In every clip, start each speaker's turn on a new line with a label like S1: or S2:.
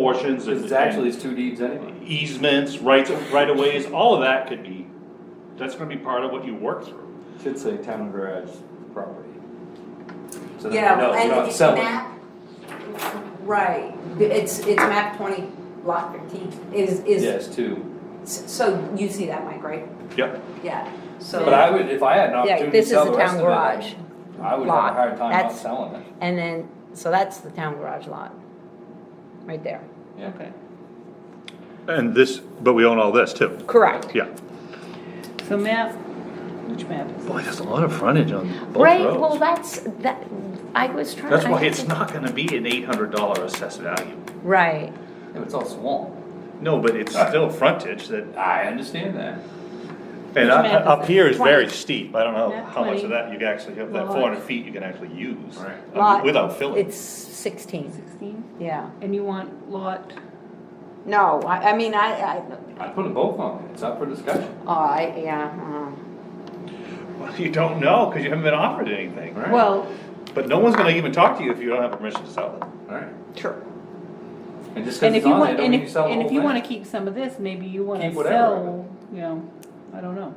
S1: portions and.
S2: It's actually, it's two deeds anyway.
S1: and Easements, rights, right of ways, all of that could be, that's gonna be part of what you work through.
S2: Should say town and garage property. So that we
S3: Yeah,
S2: know we're
S3: and
S2: not
S3: it's
S2: selling.
S3: map, right, it's, it's map twenty, lot fifteen, is, is,
S2: Yes, two.
S3: so you see that, Mike, right?
S1: Yep.
S3: Yeah,
S2: But
S4: So,
S2: I would, if I had an
S4: yeah,
S2: opportunity to
S4: this is
S2: sell
S4: the
S2: the rest
S4: town
S2: of it,
S4: garage,
S2: I would have a
S4: lot.
S2: hard time not
S4: That's-
S2: selling it.
S4: and then, so that's the town garage lot, right there.
S2: Yeah.
S5: And this, but we own all this too,
S4: Correct.
S5: yeah.
S6: So map, which map is
S5: Boy, there's a lot of frontage on both
S4: Right, well,
S5: roads.
S4: that's, that, I was trying.
S5: That's
S4: I
S5: why
S4: had
S5: it's
S4: to-
S5: not gonna be an eight hundred dollar assessed value.
S4: Right,
S2: Yeah, but it's all swamp.
S5: No, but it's still frontage that,
S2: I understand that.
S5: and
S6: Which map
S5: up, up
S6: is it?
S5: here is very
S6: Twenty.
S5: steep, I don't know
S6: Map
S5: how much of
S6: twenty.
S5: that you can actually, of that
S6: Lot.
S5: four hundred feet you can actually use.
S2: Right.
S5: uh,
S4: lot.
S5: Without filling.
S4: It's sixteen,
S6: sixteen?
S4: yeah.
S6: And you want lot,
S4: No, I, I mean, I, I,
S2: I put a both on it. It's up for discussion.
S4: oh, I, yeah,
S5: Well, You don't know, cause you haven't been offered anything,
S4: uh,
S2: Right.
S4: well,
S5: but no one's gonna even talk to you if you don't have permission to sell it.
S2: Alright.
S4: true.
S2: And just cause
S6: and if
S2: it's
S6: you
S2: on there,
S6: want,
S2: don't
S6: and
S2: mean you
S6: if,
S2: sell the
S6: and
S2: whole
S6: if you wanna
S2: thing.
S6: keep some of this, maybe you wanna
S2: Keep whatever of
S6: sell, you know, I don't know.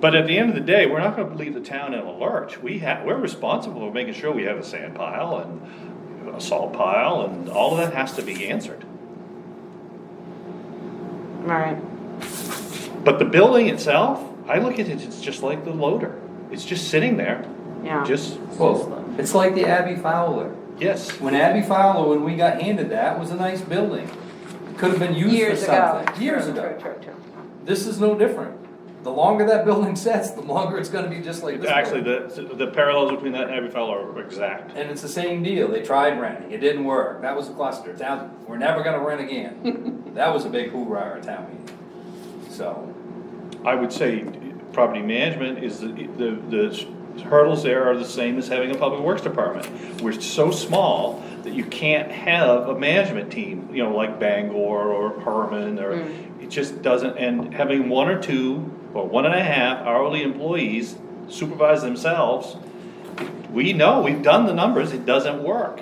S5: But at the end of the day, we're not gonna leave the town in a lurch. We have, we're responsible for making sure we have a sand pile and a salt pile and all of that has to be answered.
S4: All right,
S5: But the building itself, I look at it, it's just like the loader. It's just sitting there,
S4: yeah.
S5: just,
S2: Well, it's like the Abbey Fowler.
S5: yes.
S2: When Abbey Fowler, when we got handed that, was a nice building. Could have been used for
S4: Years ago.
S2: something. Years
S4: True,
S2: ago.
S4: True, true, true.
S2: This is no different. The longer that building sits, the longer it's gonna be just like this.
S5: Actually,
S2: building.
S5: the, the parallels between that and Abbey Fowler are exact.
S2: And it's the same deal. They tried renting. It didn't work. That was a cluster. Now, we're never gonna rent again. That was a big hoorah at town meeting. So,
S5: I would say property management is, the, the the hurdles there are the same as having a public works department. We're so small that you can't have a management team, you know, like Bangor or Herman, or, it just doesn't, and having one or two, or one and a half hourly employees supervise themselves, we know, we've done the numbers, it doesn't work.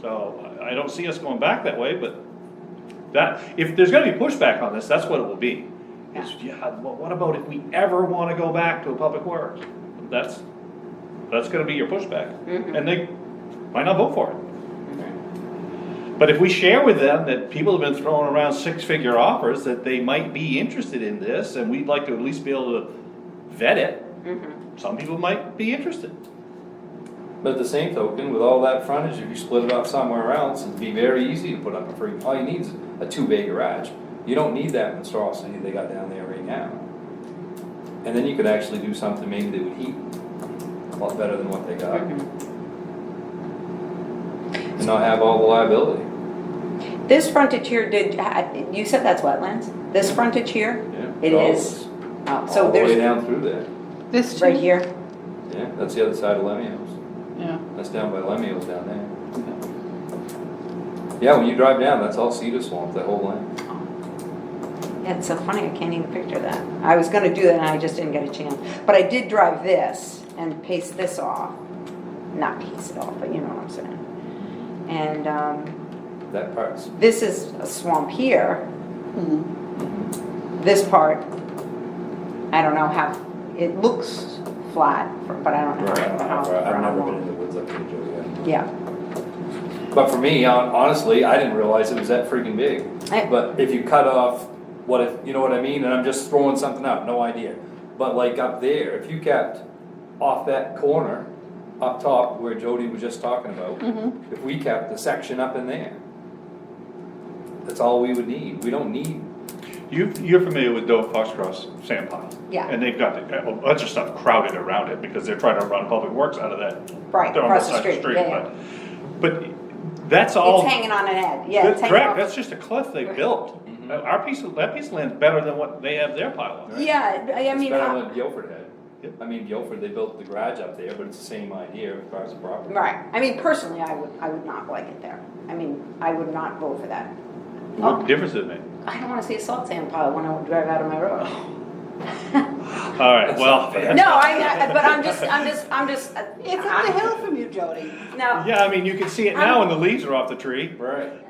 S5: So, I I don't see us going back that way, but that, if there's gonna be pushback on this, that's what it will be. Is, yeah, well, what about if we ever wanna go back to a public works? That's, that's gonna be your pushback, and they might not vote for it. But if we share with them that people have been throwing around six-figure offers, that they might be interested in this, and we'd like to at least be able to vet it, some people might be interested.
S2: but at the same token, with all that frontage, if you split it up somewhere else, it'd be very easy to put up a free, all you need is a two-bay garage. You don't need that in Straw City they got down there right now. And then you could actually do something maybe that would heat a lot better than what they got. And not have all the liability,
S3: this frontage here did, ha- you said that's wetlands, this frontage here,
S2: yeah.
S3: It
S2: All
S3: is.
S2: this,
S3: Oh,
S2: All
S3: so
S2: the way
S3: there's,
S2: down through there,
S6: This
S3: right here,
S2: yeah, that's the other side of Lemmy's.
S6: Yeah.
S2: That's down by Lemuel's down there. Yeah, when you drive down, that's all cedar swamp, that whole land.
S3: Yeah, it's so funny, I can't even picture that. I was gonna do that and I just didn't get a chance, but I did drive this and paste this off, not paste it off, but you know what I'm saying. And, um,
S2: That part's,
S3: this is a swamp here. This part, I don't know how, it looks flat, but I don't know
S2: Right, I don't know,
S3: how, for
S2: I've
S3: how
S2: never been in
S3: long.
S2: the woods up here, Joey.
S3: Yeah,
S2: But for me, hon- honestly, I didn't realize it was that freaking big.
S3: I-
S2: But if you cut off, what if, you know what I mean, and I'm just throwing something out, no idea. But like up there, if you kept off that corner, up top where Jody was just talking about,
S3: Mm-hmm.
S2: if we kept the section up in there, that's all we would need, we don't need
S5: You, you're familiar with Doe Foxcross Sand Pile?
S3: Yeah.
S5: And they've got a bunch of stuff crowded around it because they're trying to run public works out of that.
S3: Right,
S5: they're on
S3: across the
S5: side of
S3: street, yeah,
S5: But but that's all.
S3: it's hanging on an edge, yeah,
S5: That's
S3: it's hanging
S5: Correct, that's
S3: off.
S5: just a cliff they built.
S2: Mhm.
S5: That- Our piece of, that piece of land's better than what they have their pile on.
S3: Yeah, I I
S2: It's
S3: mean,
S2: better
S3: uh,
S2: than Guilford had.
S5: Yep.
S2: I mean, Guilford, they built the garage up there, but it's the same idea as far as the property.
S3: right, I mean, personally, I would, I would not like it there. I mean, I would not vote for that. Oh.
S5: What difference does it make?
S3: I don't wanna see a salt sand pile when I drive out of my road.
S5: All right, well,
S3: No, I, I- but I'm just, I'm just, I'm just.
S7: It's up the hill from you, Jody.
S3: Now,
S5: yeah, I mean, you can see it now when the leaves are off the tree.
S2: Right.